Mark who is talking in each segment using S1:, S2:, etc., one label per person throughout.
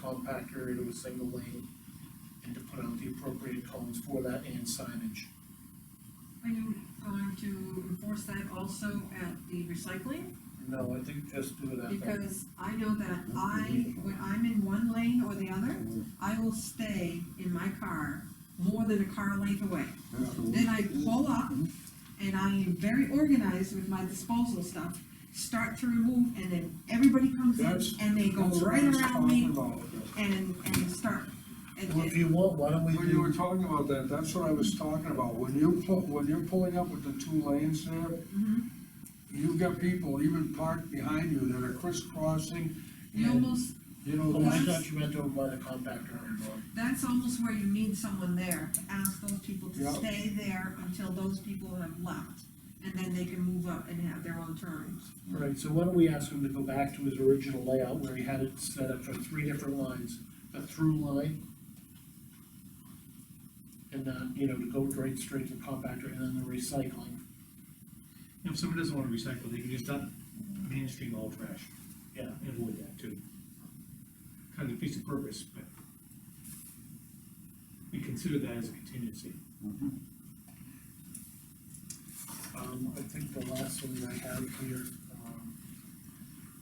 S1: compact area to a single lane, and to put out the appropriate cones for that and signage.
S2: Are you going uh, to enforce that also at the recycling?
S1: No, I think just do it at that.
S2: Because I know that I, when I'm in one lane or the other,
S3: Mm-hmm.
S2: I will stay in my car more than a car length away. Then I
S3: Mm-hmm.
S2: pull up, and I am very organized with my disposal stuff, start to remove, and then everybody comes
S3: That's-
S2: in, and they go
S3: That's what
S2: right
S3: I was
S2: around me
S3: talking about.
S2: and, and start. and-
S1: Well, if you want, why don't we
S3: When you were
S1: do,
S3: talking about that, that's what I was talking about, when you pull, when you're pulling up with the two lanes there,
S2: Mhm.
S3: you've got people even parked behind you that are crisscrossing,
S2: You almost,
S3: you know,
S1: oh, I
S3: that's-
S1: thought you meant over by the compact area, Bob.
S2: that's almost where you need someone there to ask those people to
S3: Yeah.
S2: stay there until those people have left. And then they can move up and have their own turns.
S1: Right, so why don't we ask him to go back to his original layout where he had it set up for three different lines, a through line. And then, you know, to go right straight to the compactor and then the recycling.
S4: If someone doesn't wanna recycle, they can just dump mainstream all trash.
S1: Yeah.
S4: And avoid that too. Kind of defeats the purpose, but we consider that as a contingency.
S1: Um, I think the last one I have here, um,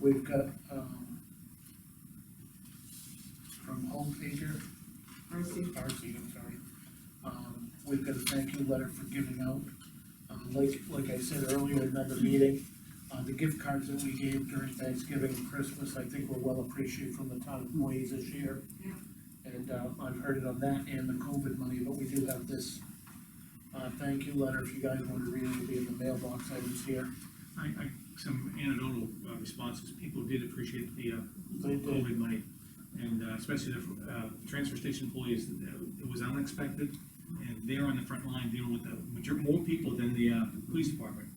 S1: we've got, um, from Home Pager,
S2: I see.
S1: RC, I'm sorry. Um, we've got a thank you letter for giving out. Um, like, like I said earlier in another meeting, uh, the gift cards that we gave during Thanksgiving and Christmas, I think were well appreciated from the town employees this year.
S2: Yeah.
S1: And, uh, I've heard it on that and the COVID money, but we do have this, uh, thank you letter, if you guys want to read it, it'll be in the mailbox items here.
S4: I, I, some anecdotal uh, responses, people did appreciate the, uh,
S1: They did.
S4: COVID money. And uh, especially the, uh, transfer station employees, uh, it was unexpected, and they're on the front line dealing with the, major- more people than the, uh, police department.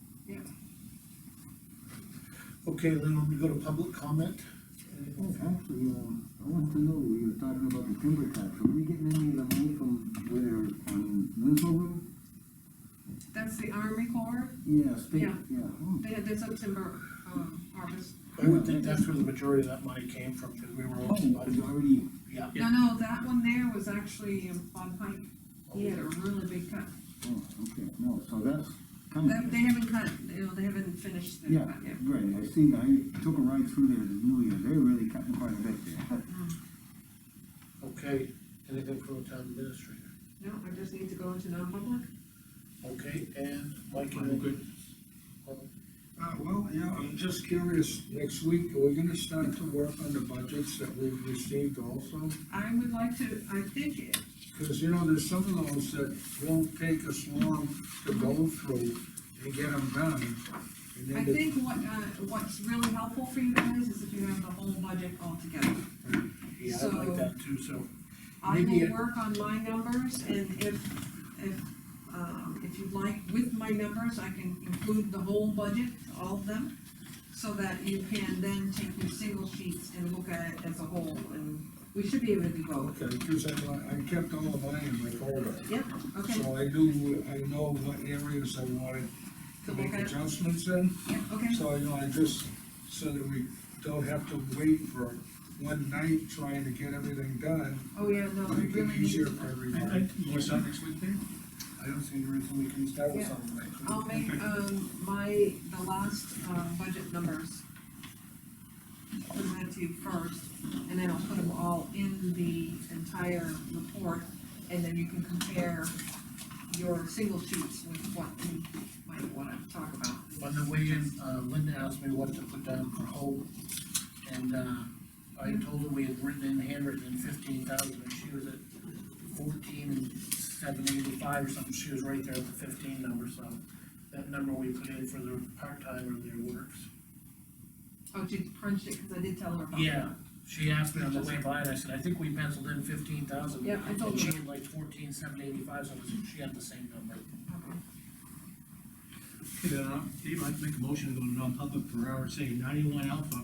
S1: Okay, then when we go to public comment,
S5: Hey, Actually, um, I want to know, we were talking about the timber tax, are we getting any of the money from where, on Winslow Road?
S2: That's the Army Corps,
S5: Yeah, state,
S2: Yeah.
S5: yeah. hmm.
S2: they had this up timber, um, harvest.
S1: I would think that's where the majority of that money came from, because we were.
S5: Oh, it's already,
S1: Yeah.
S2: No, no, that one there was actually um, Bob Pike, he had a really big cut.
S5: oh, okay, no, so that's
S2: That- They
S5: coming.
S2: haven't cut, you know, they haven't finished their
S5: Hmm. Yeah,
S2: cut yet.
S5: right, I see, I took a ride through there the New Year, they're really cutting quite a bit there.
S1: Okay, anything from the town administrator?
S2: No, I just need to go into non-public.
S1: Okay, and Mike, Oh,
S4: I'm
S1: and
S4: good.
S3: Uh, well, yeah, I'm just curious, next week, are we gonna start to work on the budgets that we've received also?
S2: I would like to, I think, it-
S3: Because, you know, there's some of those that won't take us long to go through and get them done. And
S2: I
S3: then the-
S2: think what, uh, what's really helpful for you guys is if you have the whole budget all together.
S1: yeah, I like that too, so,
S2: I
S1: Maybe
S2: will
S1: it-
S2: work on my numbers, and if, if, um, if you'd like, with my numbers, I can include the whole budget, all of them, so that you can then take your single sheets and look at it as a whole, and we should be able to do both.
S3: Okay, because I, I kept all of mine in my folder.
S2: Yep, okay,
S3: So I do, I know what areas I wanted to
S2: To
S3: make
S2: look at.
S3: adjustments in,
S2: yeah, okay,
S3: so I know, I just, so that we don't have to wait for one night trying to get everything done.
S2: oh, yeah, no, we
S3: Make
S2: really
S3: it easier
S2: need,
S3: for
S4: I, I,
S3: everybody.
S4: you want to start next week then?
S1: I don't see any reason we can start with
S2: Yeah.
S1: something like that.
S2: I'll make, um, my, the last, uh, budget numbers. Put them to you first, and then I'll put them all in the entire report, and then you can compare your single sheets with what you might wanna talk about.
S1: On the way in, uh, Linda asked me what to put down for hope, and, uh, I told her we had written in handwritten in fifteen thousand, and she was at fourteen and seven eighty-five or something, she was right there at the fifteen number, so that number we put in for the part-time or their works.
S2: Oh, she crunched it, cause I did tell her about that.
S1: Yeah, she asked me on the way by, and I said, I think we penciled in fifteen thousand.
S2: Yeah, I told
S1: And she
S2: her.
S1: had like fourteen, seven eighty-five, so she had the same number.
S2: Okay.
S4: Okay, then, uh, Dave, I'd make a motion to go to non-public for RSA ninety-one alpha